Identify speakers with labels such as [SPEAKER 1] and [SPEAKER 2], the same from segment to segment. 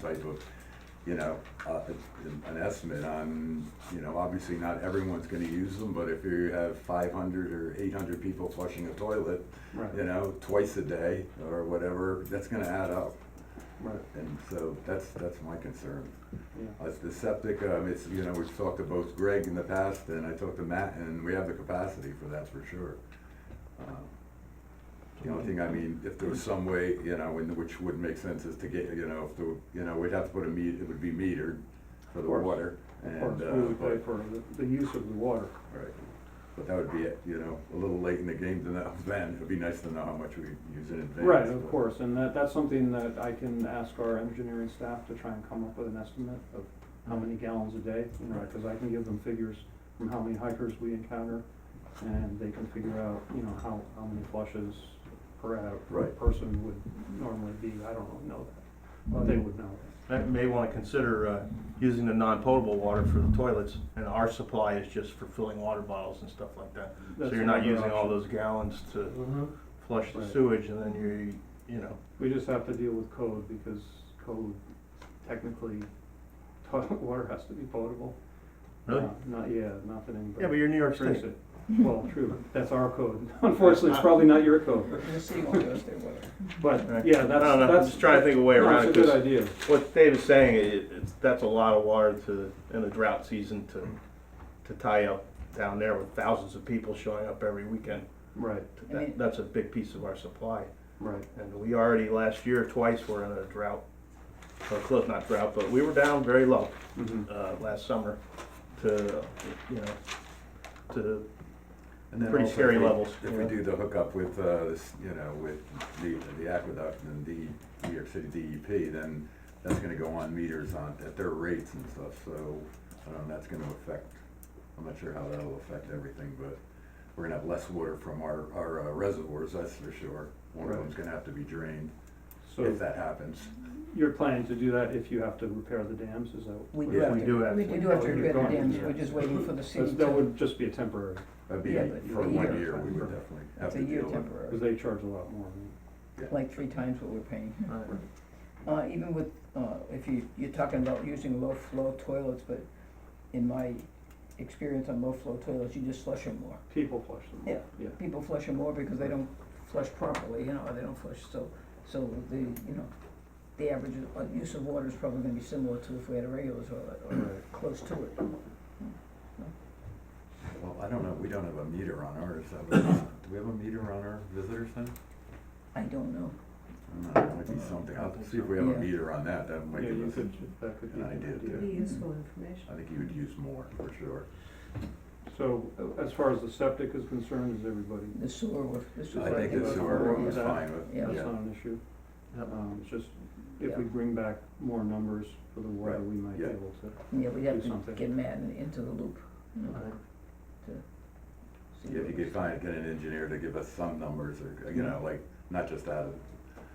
[SPEAKER 1] type of, you know, uh, an- an estimate on, you know, obviously not everyone's gonna use them, but if you have five hundred or eight hundred people flushing a toilet, you
[SPEAKER 2] Right,
[SPEAKER 1] know, twice a day or whatever, that's gonna add up.
[SPEAKER 2] right,
[SPEAKER 1] And so that's, that's my concern.
[SPEAKER 2] yeah,
[SPEAKER 1] As the septic, um, it's, you know, we've talked to both Greg in the past and I talked to Matt and we have the capacity for that for sure. Um, The only thing, I mean, if there was some way, you know, and which would make sense is to get, you know, if the, you know, we'd have to put a meet, it would be metered for
[SPEAKER 2] Of
[SPEAKER 1] the
[SPEAKER 2] course.
[SPEAKER 1] water.
[SPEAKER 2] Of
[SPEAKER 1] and
[SPEAKER 2] course,
[SPEAKER 1] uh,
[SPEAKER 2] we would
[SPEAKER 1] but-
[SPEAKER 2] pay for the, the use of the water.
[SPEAKER 1] Right, but that would be, it, you know, a little late in the game to know then, it'd be nice to know how much we use in advance.
[SPEAKER 2] Right, of
[SPEAKER 1] but-
[SPEAKER 2] course, and that, that's something that I can ask our engineering staff to try and come up with an estimate of how many gallons a day, you know,
[SPEAKER 1] Mm-hmm. Right.
[SPEAKER 2] cause I can give them figures from how many hikers we encounter, and they can figure out, you know, how, how many flushes per, hour per
[SPEAKER 1] Right.
[SPEAKER 2] person would normally be, I don't know that, but they
[SPEAKER 1] Mm-hmm.
[SPEAKER 2] would know that.
[SPEAKER 3] I may want to consider uh, using the non-potable water for the toilets, and our supply is just for filling water bottles and stuff like that. So
[SPEAKER 2] That's
[SPEAKER 3] you're not
[SPEAKER 2] another
[SPEAKER 3] using all
[SPEAKER 2] option. Mm-hmm.
[SPEAKER 3] those gallons to flush the
[SPEAKER 2] Right.
[SPEAKER 3] sewage, and then you, you know,
[SPEAKER 2] We just have to deal with code because code technically, toilet water has to be potable.
[SPEAKER 3] really?
[SPEAKER 2] Uh, Not, yeah, not that anybody.
[SPEAKER 3] Yeah, but you're New York
[SPEAKER 2] drinks
[SPEAKER 3] State.
[SPEAKER 2] it. Well, true, that's our code. Unfortunately, it's probably not your code,
[SPEAKER 4] The city won't go state water.
[SPEAKER 2] but
[SPEAKER 3] Right.
[SPEAKER 2] yeah, that's,
[SPEAKER 3] I don't know, I'm
[SPEAKER 2] that's.
[SPEAKER 3] just trying to think of a way
[SPEAKER 2] no,
[SPEAKER 3] around it,
[SPEAKER 2] It's a good
[SPEAKER 3] 'cause-
[SPEAKER 2] idea.
[SPEAKER 3] What Dave is saying, it, it's, that's a lot of water to, in the drought season to, to tie up down there with thousands of people showing up every weekend.
[SPEAKER 2] Right,
[SPEAKER 4] I mean-
[SPEAKER 3] That, that's a big piece of our supply.
[SPEAKER 2] right,
[SPEAKER 3] And we already, last year, twice were in a drought, or close, not drought, but we were down very low
[SPEAKER 2] mhm,
[SPEAKER 3] uh, last summer to, you know, to,
[SPEAKER 1] And then
[SPEAKER 3] Pretty
[SPEAKER 1] also,
[SPEAKER 3] scary
[SPEAKER 1] if we-
[SPEAKER 3] levels,
[SPEAKER 1] If
[SPEAKER 3] you
[SPEAKER 1] we
[SPEAKER 3] know?
[SPEAKER 1] do the hookup with, uh, this, you know, with the, the aqueduct and the New York City DEP, then that's gonna go on meters on, at their rates and stuff, so, I don't know, that's gonna affect, I'm not sure how that'll affect everything, but we're gonna have less water from our, our uh, reservoirs, that's for sure. One of
[SPEAKER 2] Right.
[SPEAKER 1] them's gonna have to be drained,
[SPEAKER 2] so
[SPEAKER 1] if that happens.
[SPEAKER 2] you're planning to do that if you have to repair the dams, is that?
[SPEAKER 4] We
[SPEAKER 2] what
[SPEAKER 4] do
[SPEAKER 2] it
[SPEAKER 4] have
[SPEAKER 2] is?
[SPEAKER 3] we do have.
[SPEAKER 4] We do have to
[SPEAKER 2] Oh, you're
[SPEAKER 4] repair the
[SPEAKER 2] going,
[SPEAKER 4] dams,
[SPEAKER 2] yeah.
[SPEAKER 4] we're just waiting for the city
[SPEAKER 2] That's- That
[SPEAKER 4] to,
[SPEAKER 2] would just be a temporary,
[SPEAKER 1] That'd be,
[SPEAKER 4] Yeah, but
[SPEAKER 1] for
[SPEAKER 4] for a
[SPEAKER 1] one
[SPEAKER 4] year.
[SPEAKER 1] year, we would definitely have
[SPEAKER 4] it's
[SPEAKER 1] to
[SPEAKER 4] a year
[SPEAKER 1] deal with.
[SPEAKER 2] because
[SPEAKER 4] temporary,
[SPEAKER 2] they charge a lot more.
[SPEAKER 4] like three times what we're paying.
[SPEAKER 3] Right.
[SPEAKER 4] Uh, even with, uh, if you, you're talking about using low flow toilets, but in my experience on low flow toilets, you just flush them more.
[SPEAKER 2] People flush them.
[SPEAKER 4] Yeah.
[SPEAKER 2] Yeah,
[SPEAKER 4] People flush them more because they don't flush properly, you know, or they don't flush, so, so the, you know, the average of- uh, use of water is probably gonna be similar to if we had a regular toilet, or
[SPEAKER 2] Right.
[SPEAKER 4] close to it.
[SPEAKER 1] Well, I don't know, we don't have a meter on ours, that would- do we have a meter on our visitor center?
[SPEAKER 4] I don't know.
[SPEAKER 1] I don't know, Uh, That might be something, I'll see if we have a
[SPEAKER 4] Yeah.
[SPEAKER 1] meter on that, that might
[SPEAKER 2] yeah,
[SPEAKER 1] give
[SPEAKER 2] you
[SPEAKER 1] us,
[SPEAKER 2] could, that could be
[SPEAKER 1] an
[SPEAKER 2] an
[SPEAKER 1] idea,
[SPEAKER 2] idea.
[SPEAKER 1] too.
[SPEAKER 5] Be useful information.
[SPEAKER 1] I think you would use more, for sure.
[SPEAKER 2] So uh, as far as the septic is concerned, is everybody,
[SPEAKER 4] The sewer was, this was.
[SPEAKER 1] I think
[SPEAKER 2] think
[SPEAKER 1] the
[SPEAKER 2] that's
[SPEAKER 1] sewer
[SPEAKER 2] what
[SPEAKER 1] was
[SPEAKER 2] we're-
[SPEAKER 1] fine with,
[SPEAKER 4] Yeah.
[SPEAKER 2] that's
[SPEAKER 1] yeah,
[SPEAKER 2] not an issue.
[SPEAKER 3] Yep.
[SPEAKER 2] Um, it's just, if we bring back more numbers for the water, we might be
[SPEAKER 1] Yeah.
[SPEAKER 2] able to.
[SPEAKER 4] Yeah, we have
[SPEAKER 2] Do something.
[SPEAKER 4] to get Matt in- into the loop, you know,
[SPEAKER 3] Right.
[SPEAKER 4] see
[SPEAKER 1] if you
[SPEAKER 4] what-
[SPEAKER 1] could find, get an engineer to give us some numbers, or, you know, like, not just out of,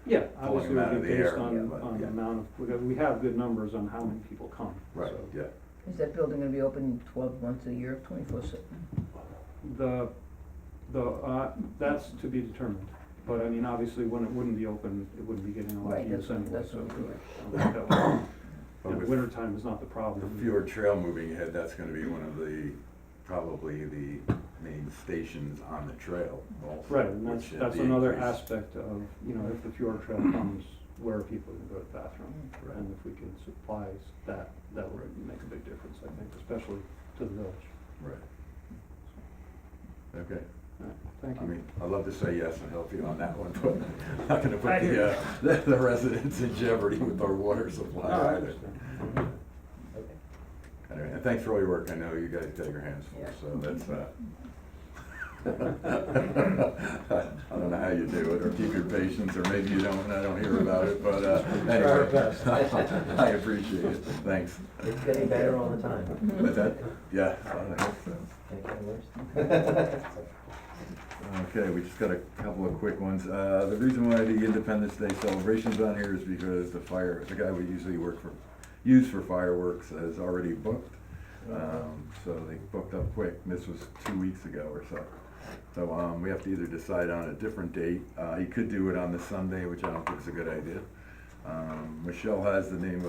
[SPEAKER 2] Yeah,
[SPEAKER 1] Pulling
[SPEAKER 2] obviously,
[SPEAKER 1] them out
[SPEAKER 2] it
[SPEAKER 1] of
[SPEAKER 2] would be
[SPEAKER 1] the
[SPEAKER 2] based
[SPEAKER 1] air,
[SPEAKER 2] on,
[SPEAKER 1] but,
[SPEAKER 2] on the
[SPEAKER 1] yeah.
[SPEAKER 2] amount of, we got- we have good numbers on how many people come,
[SPEAKER 1] right,
[SPEAKER 2] so.
[SPEAKER 1] yeah.
[SPEAKER 4] Is that building gonna be open twelve months a year, twenty-four seven?
[SPEAKER 2] The, the, uh, that's to be determined, but I mean, obviously, when it wouldn't be open, it wouldn't be getting a lot of
[SPEAKER 4] Right,
[SPEAKER 2] use
[SPEAKER 4] that's,
[SPEAKER 2] anyway,
[SPEAKER 4] that's
[SPEAKER 2] so.
[SPEAKER 4] what we're,
[SPEAKER 1] But with
[SPEAKER 2] Winter time is not the
[SPEAKER 1] the
[SPEAKER 2] problem.
[SPEAKER 1] fewer trail moving ahead, that's gonna be one of the, probably the main stations on the trail also.
[SPEAKER 2] Right, and that's,
[SPEAKER 1] which is
[SPEAKER 2] that's
[SPEAKER 1] the
[SPEAKER 2] another
[SPEAKER 1] increase.
[SPEAKER 2] aspect of, you know, if the Fjord Trail comes, where are people gonna go to the bathroom?
[SPEAKER 1] Right.
[SPEAKER 2] And if we can supply s- that, that would make a big difference, I think, especially to the village.
[SPEAKER 1] Right. Okay,
[SPEAKER 2] Thank
[SPEAKER 1] I
[SPEAKER 2] you.
[SPEAKER 1] mean, I'd love to say yes and help you on that one, but I'm not gonna put the, uh, the- the residents in jeopardy with our water supply
[SPEAKER 2] No, I
[SPEAKER 1] either.
[SPEAKER 2] understand.
[SPEAKER 1] Anyway, and thanks for all your work, I know you guys got your hands full,
[SPEAKER 4] Yeah.
[SPEAKER 1] so that's, uh. I don't know how you do it, or keep your patience, or maybe you don't, and I don't hear about it, but, uh,
[SPEAKER 6] Try our
[SPEAKER 1] anyway.
[SPEAKER 6] best.
[SPEAKER 1] I appreciate it, thanks.
[SPEAKER 6] It's getting better all the time.
[SPEAKER 1] But that, yeah, I don't know, so.
[SPEAKER 6] Can't get worse.
[SPEAKER 1] Okay, we just got a couple of quick ones. Uh, the reason why the Independence Day celebration's on here is because the fire, the guy we usually work for, use for fireworks is already booked. Um, so they booked up quick. This was two weeks ago or so. So, um, we have to either decide on a different date. Uh, he could do it on the Sunday, which I don't think is a good idea. Um, Michelle has the name of